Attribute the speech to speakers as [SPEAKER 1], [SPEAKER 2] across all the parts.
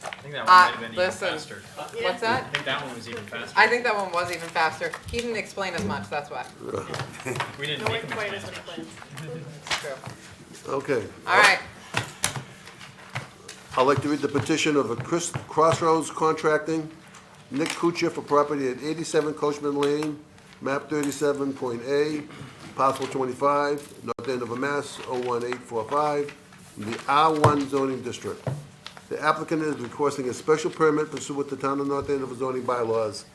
[SPEAKER 1] that
[SPEAKER 2] Uh,
[SPEAKER 1] one might have been even
[SPEAKER 2] listen.
[SPEAKER 1] faster.
[SPEAKER 2] What's
[SPEAKER 1] I
[SPEAKER 2] that?
[SPEAKER 1] think that one was even faster.
[SPEAKER 2] I think that one was even faster. He didn't explain as much, that's why.
[SPEAKER 1] We didn't
[SPEAKER 3] No
[SPEAKER 1] make
[SPEAKER 3] one
[SPEAKER 1] him
[SPEAKER 3] quite
[SPEAKER 1] explain
[SPEAKER 3] as
[SPEAKER 1] as
[SPEAKER 3] many
[SPEAKER 1] much.
[SPEAKER 3] plans.
[SPEAKER 2] It's true.
[SPEAKER 4] Okay.
[SPEAKER 2] All right,
[SPEAKER 4] I'd like to read the petition of a Chris- Crossroads Contracting, Nick Kuchar for property at 87 Coachman Lane, map 37.A, parcel 25, North Andover, Mass. 01845, in the R1 zoning district. The applicant is requesting a special permit pursuant to Town of North Andover zoning bylaws,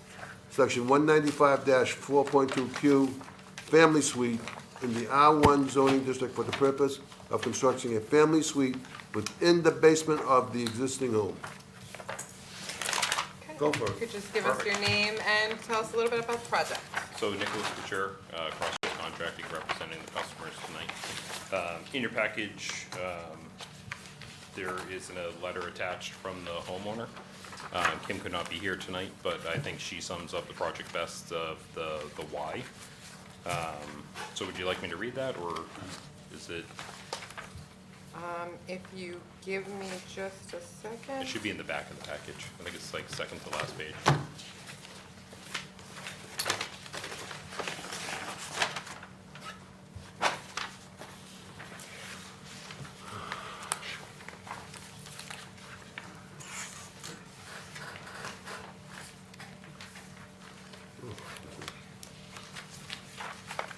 [SPEAKER 4] section 195-4.2Q, family suite in the R1 zoning district for the purpose of constructing a family suite within the basement of the existing home. Go for it.
[SPEAKER 2] you could just give us your name and tell us a little bit about the project.
[SPEAKER 5] So Nicholas Couture, uh, Crossroads Contracting, representing the customers tonight. Um, In your package, um, there is a letter attached from the homeowner. Uh, Kim could not be here tonight, but I think she sums up the project best of the the why. Um, So would you like me to read that, or is it,
[SPEAKER 2] If you give me just a second.
[SPEAKER 5] it should be in the back of the package? I think it's like second to last page.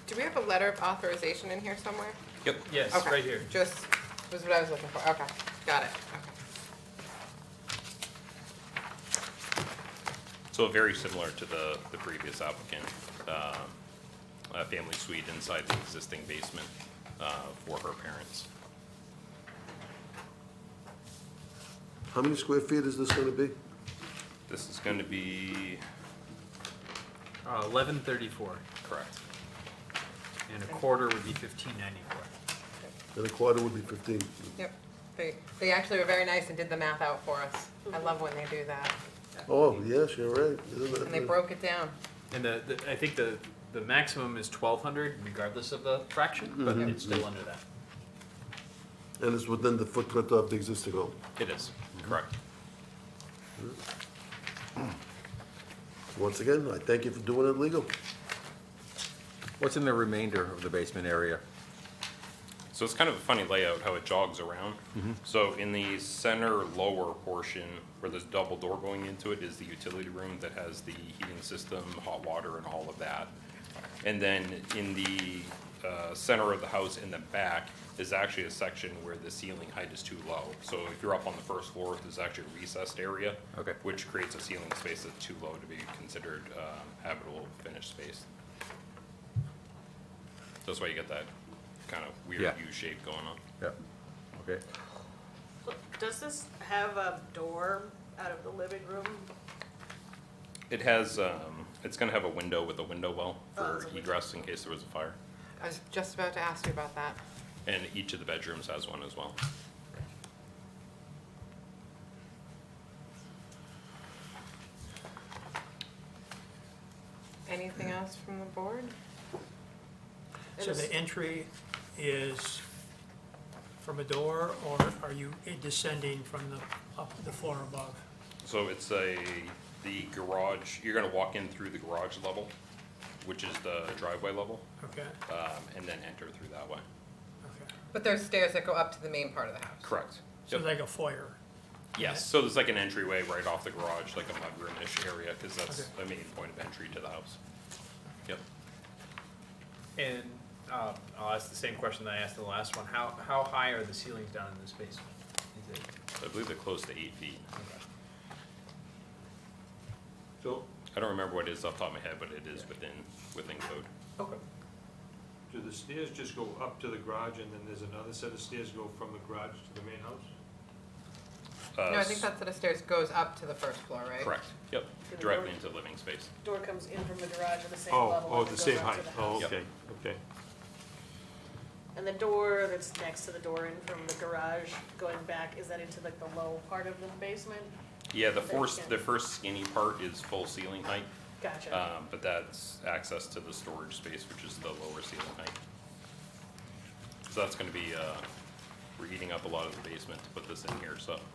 [SPEAKER 2] Do we have a letter of authorization in here somewhere?
[SPEAKER 5] Yep.
[SPEAKER 1] Yes,
[SPEAKER 2] Okay,
[SPEAKER 1] right here.
[SPEAKER 2] Just, was what I was looking for, okay, got it, okay.
[SPEAKER 5] So very similar to the, the previous applicant, um, a family suite inside the existing basement uh, for her parents.
[SPEAKER 4] How many square feet is this gonna be?
[SPEAKER 5] This is going to be,
[SPEAKER 1] Uh, eleven thirty-four,
[SPEAKER 5] correct,
[SPEAKER 1] and a quarter would be fifteen ninety-four.
[SPEAKER 4] And a quarter would be 15.
[SPEAKER 2] Yep, they, they actually were very nice and did the math out for us. I love when they do that,
[SPEAKER 4] Oh, yes, you're right. Isn't that-
[SPEAKER 2] and they broke it down.
[SPEAKER 1] And the, the, I think the, the maximum is twelve hundred regardless of the fraction, but
[SPEAKER 2] Mm-hmm.
[SPEAKER 1] it's still under that.
[SPEAKER 4] And it's within the footprint of the existing home.
[SPEAKER 5] it is,
[SPEAKER 2] Mm-hmm.
[SPEAKER 5] correct.
[SPEAKER 4] Once again, I thank you for doing it legal.
[SPEAKER 6] What's in the remainder of the basement area?
[SPEAKER 5] So it's kind of a funny layout, how it jogs around.
[SPEAKER 6] Mm-hmm.
[SPEAKER 5] So in the center lower portion, where there's double door going into it, is the utility room that has the heating system, hot water, and all of that. And then in the uh, center of the house in the back is actually a section where the ceiling height is too low. So if you're up on the first floor, there's actually a recessed area.
[SPEAKER 6] Okay.
[SPEAKER 5] Which creates a ceiling space that's too low to be considered um, habitable finished space. That's why you get that kind of weird
[SPEAKER 6] Yeah.
[SPEAKER 5] U shape going on.
[SPEAKER 6] Yeah, okay.
[SPEAKER 3] Does this have a door out of the living room?
[SPEAKER 5] It has, um, it's gonna have a window with a window well
[SPEAKER 3] Oh,
[SPEAKER 5] for
[SPEAKER 3] it's a window.
[SPEAKER 5] egress in case there was a fire.
[SPEAKER 2] I was just about to ask you about that.
[SPEAKER 5] And each of the bedrooms has one as well.
[SPEAKER 2] Anything else from the board?
[SPEAKER 7] So the entry is from a door, or are you descending from the, up the floor above?
[SPEAKER 5] So it's a, the garage, you're gonna walk in through the garage level, which is the driveway level,
[SPEAKER 7] Okay,
[SPEAKER 5] um, and then enter through that way.
[SPEAKER 7] okay.
[SPEAKER 2] But there's stairs that go up to the main part of the house.
[SPEAKER 5] Correct.
[SPEAKER 7] So
[SPEAKER 5] Yep.
[SPEAKER 7] like a foyer?
[SPEAKER 5] Yes, so there's like an entryway right off the garage, like a mudroom-ish area, cause that's
[SPEAKER 7] Okay.
[SPEAKER 5] the main point of entry to the house. Yep.
[SPEAKER 1] And, uh, I'll ask the same question that I asked in the last one, how, how high are the ceilings down in this basement? Is it,
[SPEAKER 5] I believe they're close to eight feet.
[SPEAKER 1] okay. So,
[SPEAKER 5] I don't remember what it is off the top of my head, but it is within, within code.
[SPEAKER 1] okay.
[SPEAKER 8] Do the stairs just go up to the garage and then there's another set of stairs go from the garage to the main house?
[SPEAKER 5] Uh,
[SPEAKER 2] No, I think that set of stairs goes up to the first floor, right?
[SPEAKER 5] Correct, yep,
[SPEAKER 3] To the
[SPEAKER 5] directly
[SPEAKER 3] door.
[SPEAKER 5] into living space.
[SPEAKER 3] Door comes in from the garage at the same
[SPEAKER 8] Oh,
[SPEAKER 3] level.
[SPEAKER 8] oh,
[SPEAKER 3] as it
[SPEAKER 8] the
[SPEAKER 3] goes
[SPEAKER 8] same
[SPEAKER 3] up
[SPEAKER 8] height,
[SPEAKER 3] to the
[SPEAKER 8] oh,
[SPEAKER 3] house.
[SPEAKER 5] Yep.
[SPEAKER 8] okay, okay.
[SPEAKER 3] And the door that's next to the door in from the garage going back, is that into like the low part of the basement?
[SPEAKER 5] Yeah, the
[SPEAKER 3] Very
[SPEAKER 5] first, the
[SPEAKER 3] skinny.
[SPEAKER 5] first skinny part is full ceiling height,
[SPEAKER 3] Gotcha.
[SPEAKER 5] um, but that's access to the storage space, which is the lower ceiling height. So that's gonna be, uh, we're eating up a lot of the basement to put this in here, so